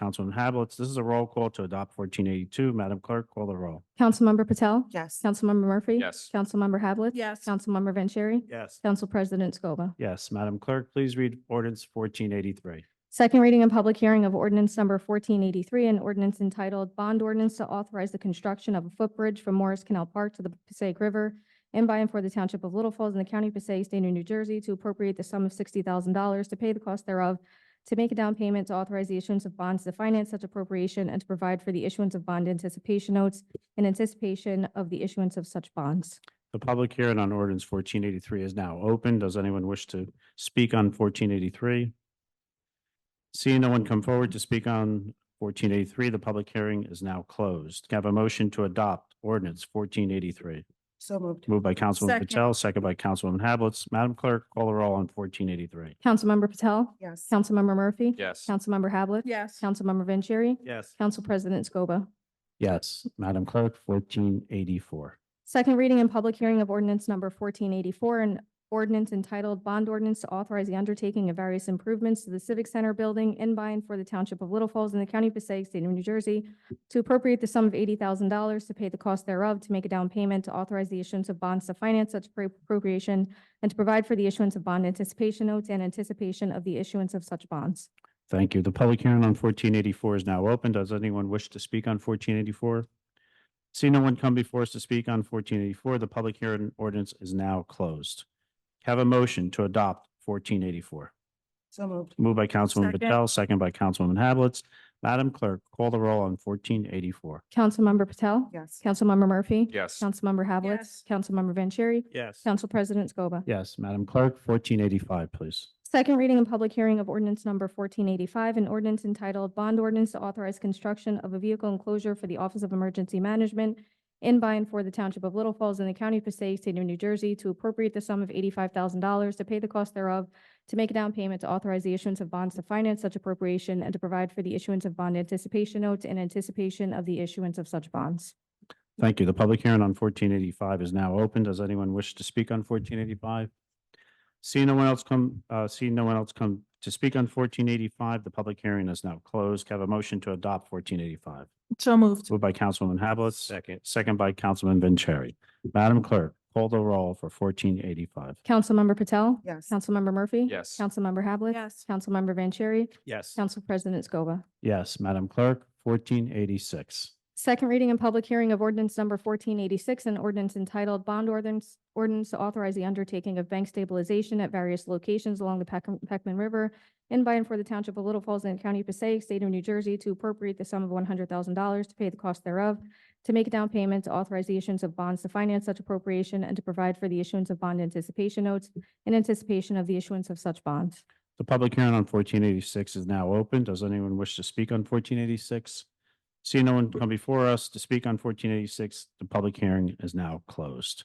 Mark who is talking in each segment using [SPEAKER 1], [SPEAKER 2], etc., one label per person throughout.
[SPEAKER 1] Councilman Hablitz. This is a roll call to adopt fourteen eighty-two. Madam Clerk, call the roll.
[SPEAKER 2] Councilmember Patel?
[SPEAKER 3] Yes.
[SPEAKER 2] Councilmember Murphy?
[SPEAKER 4] Yes.
[SPEAKER 2] Councilmember Havlet?
[SPEAKER 3] Yes.
[SPEAKER 2] Councilmember Vanchery?
[SPEAKER 1] Yes.
[SPEAKER 2] Council President Scoba.
[SPEAKER 1] Yes, Madam Clerk, please read ordinance fourteen eighty-three.
[SPEAKER 2] Second reading and public hearing of ordinance number fourteen eighty-three, an ordinance entitled Bond Ordinance to Authorize the Construction of a Footbridge from Morris Canal Park to the Passaic River and by and for the Township of Little Falls in the County of Passaic, State of New Jersey, to appropriate the sum of sixty thousand dollars to pay the cost thereof, to make a down payment, to authorize the issuance of bonds to finance such appropriation, and to provide for the issuance of bond anticipation notes in anticipation of the issuance of such bonds.
[SPEAKER 1] The public hearing on ordinance fourteen eighty-three is now open. Does anyone wish to speak on fourteen eighty-three? Seeing no one come forward to speak on fourteen eighty-three, the public hearing is now closed. Can I have a motion to adopt ordinance fourteen eighty-three?
[SPEAKER 3] So moved.
[SPEAKER 1] Moved by Councilwoman
[SPEAKER 3] Second.
[SPEAKER 1] Patel, second by Councilwoman Hablitz. Madam Clerk, call the roll on fourteen eighty-three.
[SPEAKER 2] Councilmember Patel?
[SPEAKER 3] Yes.
[SPEAKER 2] Councilmember Murphy?
[SPEAKER 4] Yes.
[SPEAKER 2] Councilmember Havlet?
[SPEAKER 3] Yes.
[SPEAKER 2] Councilmember Vanchery?
[SPEAKER 1] Yes.
[SPEAKER 2] Council President Scoba.
[SPEAKER 1] Yes, Madam Clerk, fourteen eighty-four.
[SPEAKER 2] Second reading and public hearing of ordinance number fourteen eighty-four, an ordinance entitled Bond Ordinance to Authorize the Undertaking of Various Improvements to the Civic Center Building in by and for the Township of Little Falls in the County of Passaic, State of New Jersey, to appropriate the sum of eighty thousand dollars to pay the cost thereof, to make a down payment, to authorize the issuance of bonds to finance such appro- appropriation, and to provide for the issuance of bond anticipation notes and anticipation of the issuance of such bonds.
[SPEAKER 1] Thank you. The public hearing on fourteen eighty-four is now open. Does anyone wish to speak on fourteen eighty-four? See no one come before us to speak on fourteen eighty-four. The public hearing ordinance is now closed. Have a motion to adopt fourteen eighty-four.
[SPEAKER 3] So moved.
[SPEAKER 1] Moved by Councilwoman
[SPEAKER 3] Second.
[SPEAKER 1] Patel, second by Councilwoman Hablitz. Madam Clerk, call the roll on fourteen eighty-four.
[SPEAKER 2] Councilmember Patel?
[SPEAKER 3] Yes.
[SPEAKER 2] Councilmember Murphy?
[SPEAKER 4] Yes.
[SPEAKER 2] Councilmember Havletts?
[SPEAKER 3] Yes.
[SPEAKER 2] Councilmember Vanchery?
[SPEAKER 1] Yes.
[SPEAKER 2] Council President Scoba.
[SPEAKER 1] Yes, Madam Clerk, fourteen eighty-five, please.
[SPEAKER 2] Second reading and public hearing of ordinance number fourteen eighty-five, an ordinance entitled Bond Ordinance to Authorize Construction of a Vehicle Enclosure for the Office of Emergency Management in by and for the Township of Little Falls in the County of Passaic, State of New Jersey, to appropriate the sum of eighty-five thousand dollars to pay the cost thereof, to make a down payment, to authorize the issuance of bonds to finance such appropriation, and to provide for the issuance of bond anticipation notes in anticipation of the issuance of such bonds.
[SPEAKER 1] Thank you. The public hearing on fourteen eighty-five is now open. Does anyone wish to speak on fourteen eighty-five? Seeing no one else come, uh, seeing no one else come to speak on fourteen eighty-five, the public hearing is now closed. Can I Have a motion to adopt fourteen eighty-five.
[SPEAKER 3] So moved.
[SPEAKER 1] Moved by Councilwoman Hablitz.
[SPEAKER 4] Second.
[SPEAKER 1] Second by Councilman Vanchery. Madam Clerk, call the roll for fourteen eighty-five.
[SPEAKER 2] Councilmember Patel?
[SPEAKER 3] Yes.
[SPEAKER 2] Councilmember Murphy?
[SPEAKER 4] Yes.
[SPEAKER 2] Councilmember Havlet?
[SPEAKER 3] Yes.
[SPEAKER 2] Councilmember Vanchery?
[SPEAKER 1] Yes.
[SPEAKER 2] Council President Scoba.
[SPEAKER 1] Yes, Madam Clerk, fourteen eighty-six.
[SPEAKER 2] Second reading and public hearing of ordinance number fourteen eighty-six, an ordinance entitled Bond Ordinance, Ordinance to Authorize the Undertaking of Bank Stabilization at Various Locations Along the Peck- Peckman River in by and for the Township of Little Falls and County of Passaic, State of New Jersey, to appropriate the sum of one hundred thousand dollars to pay the cost thereof, to make a down payment, to authorize the issuance of bonds to finance such appropriation, and to provide for the issuance of bond anticipation notes in anticipation of the issuance of such bonds.
[SPEAKER 1] The public hearing on fourteen eighty-six is now open. Does anyone wish to speak on fourteen eighty-six? Seeing no one come before us to speak on fourteen eighty-six, the public hearing is now closed.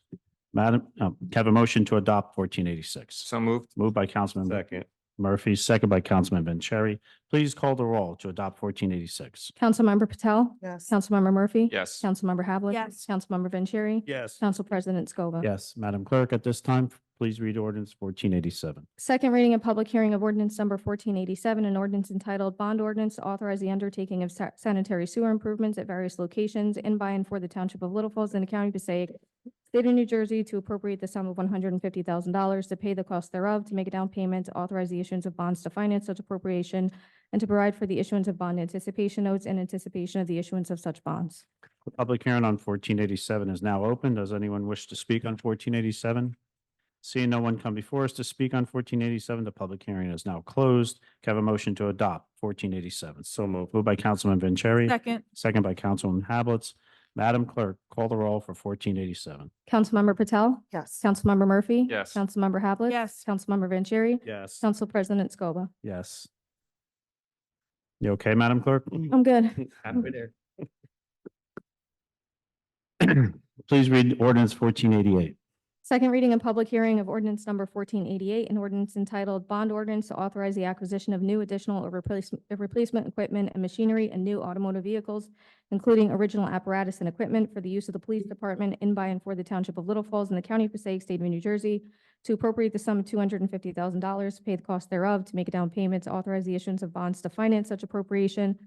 [SPEAKER 1] Madam, uh, can I have a motion to adopt fourteen eighty-six.
[SPEAKER 4] So moved.
[SPEAKER 1] Moved by Councilman
[SPEAKER 4] Second.
[SPEAKER 1] Murphy, second by Councilman Vanchery. Please call the roll to adopt fourteen eighty-six.
[SPEAKER 2] Councilmember Patel?
[SPEAKER 3] Yes.
[SPEAKER 2] Councilmember Murphy?
[SPEAKER 4] Yes.
[SPEAKER 2] Councilmember Havlet?
[SPEAKER 3] Yes.
[SPEAKER 2] Councilmember Vanchery?
[SPEAKER 1] Yes.
[SPEAKER 2] Council President Scoba.
[SPEAKER 1] Yes, Madam Clerk, at this time, please read ordinance fourteen eighty-seven.
[SPEAKER 2] Second reading and public hearing of ordinance number fourteen eighty-seven, an ordinance entitled Bond Ordinance to Authorize the Undertaking of Sa- Sanitary Sewer Improvements at Various Locations in by and for the Township of Little Falls and the County of Passaic, State of New Jersey to appropriate the sum of one hundred and fifty thousand dollars to pay the cost thereof, to make a down payment, to authorize the issuance of bonds to finance such appropriation, and to provide for the issuance of bond anticipation notes in anticipation of the issuance of such bonds.
[SPEAKER 1] The public hearing on fourteen eighty-seven is now open. Does anyone wish to speak on fourteen eighty-seven? Seeing no one come before us to speak on fourteen eighty-seven, the public hearing is now closed. Can I have a motion to adopt fourteen eighty-seven? So moved. Moved by Councilman Vanchery,
[SPEAKER 3] Second.
[SPEAKER 1] second by Councilman Hablitz. Madam Clerk, call the roll for fourteen eighty-seven.
[SPEAKER 2] Councilmember Patel?
[SPEAKER 3] Yes.
[SPEAKER 2] Councilmember Murphy?
[SPEAKER 4] Yes.
[SPEAKER 2] Councilmember Havlet?
[SPEAKER 3] Yes.
[SPEAKER 2] Councilmember Vanchery?
[SPEAKER 1] Yes.
[SPEAKER 2] Council President Scoba.
[SPEAKER 1] Yes. You okay, Madam Clerk?
[SPEAKER 2] I'm good.
[SPEAKER 4] Halfway there.
[SPEAKER 1] Please read ordinance fourteen eighty-eight.
[SPEAKER 2] Second reading and public hearing of ordinance number fourteen eighty-eight, an ordinance entitled Bond Ordinance to Authorize the Acquisition of New Additional or Replacement, Replacement Equipment and Machinery and New Automotive Vehicles, including original apparatus and equipment for the use of the Police Department in by and for the Township of Little Falls in the County of Passaic, State of New Jersey, to appropriate the sum of two hundred and fifty thousand dollars, to pay the cost thereof, to make a down payment, to authorize the issuance of bonds to finance such appropriation,